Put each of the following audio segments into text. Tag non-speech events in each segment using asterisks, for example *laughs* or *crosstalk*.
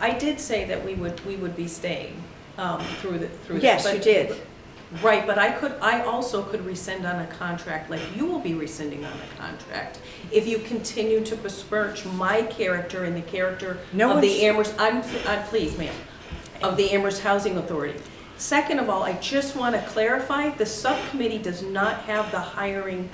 I did say that we would, we would be staying um, through the, through. the- Yes, you but- did. Right, but I could, I also could rescind on a contract, like you will be rescinding on a contract. If you continue to besmirch my character and the character No of the one's- Amherst, I'm, I'm, please, ma'am, of the Amherst Housing Authority. Second of all, I just want to clarify, the subcommittee does not have the hiring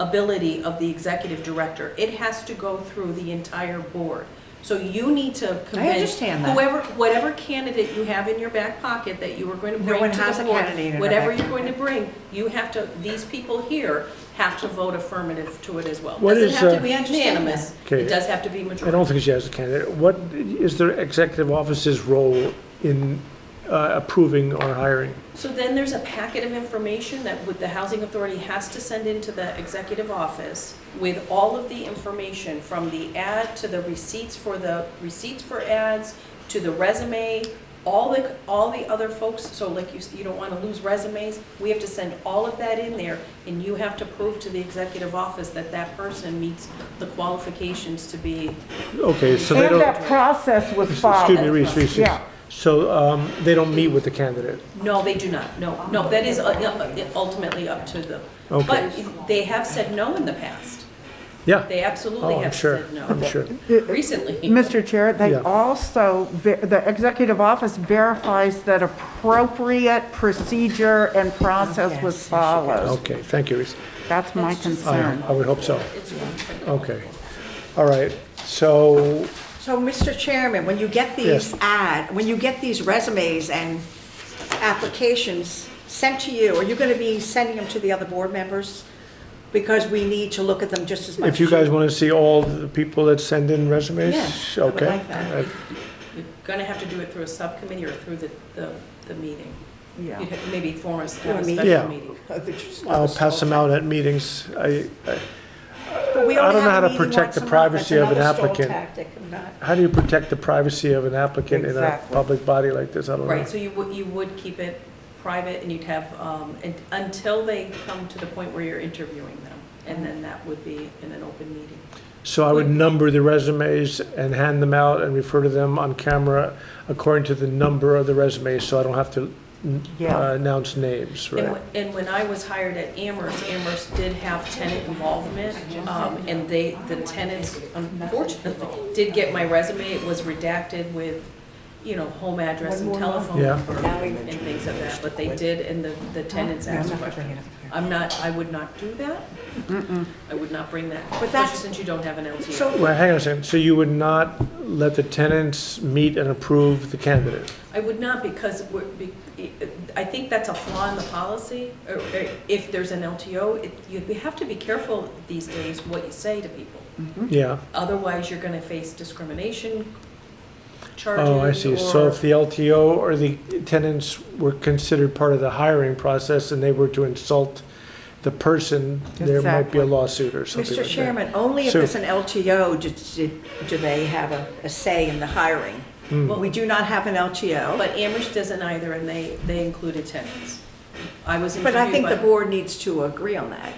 ability of the executive director. It has to go through the entire board. So you need to convince. understand that. Whoever, whatever candidate you have in your back pocket that you are going to No bring one to the has a board, candidate in their Whatever back you're going to bring, you have to, these people here have to vote affirmative to it as well. What Doesn't is, have to uh, be We understand unanimous, Okay. it does have to be I don't majority. think she has a candidate. What is the executive officer's role in uh, approving or hiring? So then there's a packet of information that would, the housing authority has to send into the executive office with all of the information, from the ad to the receipts for the, receipts for ads, to the resume, all the, all the other folks, so like you, s- you don't want to lose resumes, we have to send all of that in there, and you have to prove to the executive office that that person meets the qualifications to be, Okay, so they And don't, that process was excuse me, followed. Reese, Reese, Reese. Yeah. So um, they don't meet with the candidate? no, they do not, no, no, that is uh, uh, ultimately up to them. Okay. But they have said no in the past. Yeah, They absolutely oh, I'm have sure, said no. I'm sure. *laughs* Recently. Mr. Chair, they Yeah. also, ver- the executive office verifies that appropriate procedure and process was followed. Okay, thank you, Reese. That's my I concern. I would hope so. Okay, all right, so, So, Mr. Chairman, when you get these Yes. ad, when you get these resumes and applications sent to you, are you going to be sending them to the other board members? Because we need to look at them just as much. if you guys want to see all the people that send in resumes? Yeah, I would Okay. like that. Uh, You're going to have to do it through a subcommittee or through the, the, the meeting. Yeah. You'd have- Maybe form a have a meeting. Yeah. special meeting. I'll pass them out at meetings. I, I- But we I only don't know have how a to meeting protect once the a month. privacy That's of an another stall applicant. tactic. I'm not- how do you protect the privacy of an applicant in a Exactly. public body like this? I don't know. Right, so you would, you would keep it private and you'd have, um, and- until they come to the point where you're interviewing them. And then that would be in an open meeting. So I would number the resumes and hand them out and refer to them on camera according to the number of the resumes, so I don't have to Yeah. uh, announce names, And right? when- And when I was hired at Amherst, Amherst did have tenant involvement, um, and they, the tenants unfortunately did get my resume. It was redacted with, you know, home address and telephone Yeah. number and things of that, but they did, and the, the tenants asked questions. I'm not, I would not do that. I would not bring that, But especially that's- since you don't have an LTA. So, Well, hang on a second, so you would not let the tenants meet and approve the candidate? I would not because we're, be- I think that's a flaw in the policy. or- or If there's an LTO, it- you, we have to be careful these days what you say to people. Yeah, Otherwise, you're gonna face discrimination charges oh, I see. So or- if the LTO or the tenants were considered part of the hiring process and they were to insult the person, there might be a Exactly. lawsuit or something Mr. like that. Chairman, only if So- it's an LTO do- do do they have a a say in the hiring. Hmm. We do not have an LTO, But Amherst doesn't either, and they, they included tenants. I was interviewed but by. I think the board needs to agree on that.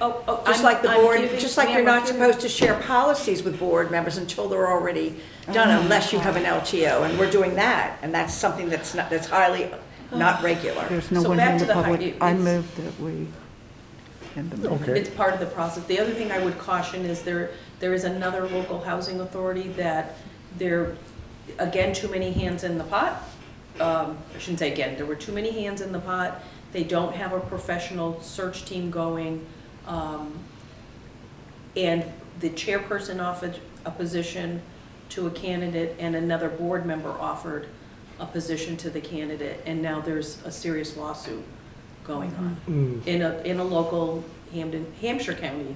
Oh, oh, Just I'm- like the I'm board, giving- just like ma'am, you're I'm not giving- supposed to share policies with board members until they're already done, unless you have an LTO, and we're doing that, and that's something that's not, that's highly not regular. There's no So one here back in to the the hi- public. it- I it's- move that we end the meeting. Okay. It's part of the process. The other thing I would caution is there, there is another local housing authority that there, again, too many hands in the pot. Um, I shouldn't say again, there were too many hands in the pot. They don't have a professional search team going. Um, And the chairperson offered a position to a candidate and another board member offered a position to the candidate. And now there's a serious lawsuit going on Hmm, in a, in a local Hampden, Hampshire County.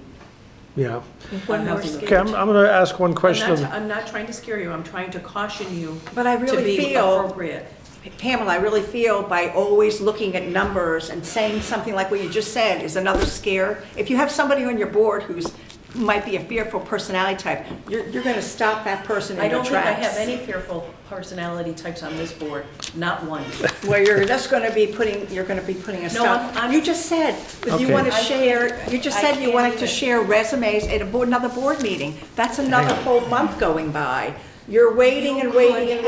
Yeah. One more housing skip. Okay, I'm, I'm gonna ask one question I'm of not, I'm not trying to scare you, I'm trying to caution you But I to be really feel, appropriate. Pamela, I really feel by always looking at numbers and saying something like what you just said is another scare. If you have somebody on your board who's, who might be a fearful personality type, you're, you're gonna stop that person I in their don't tracks. think I have any fearful personality types on this board, not one. Where you're just going to be putting, you're going to be putting a No, I'm- stop. I'm- You just said, that you Okay. want to I- share, you just I said you can't wanted even. to share resumes at a board- another board meeting. That's another Hang on. whole month going by. You're waiting and waiting and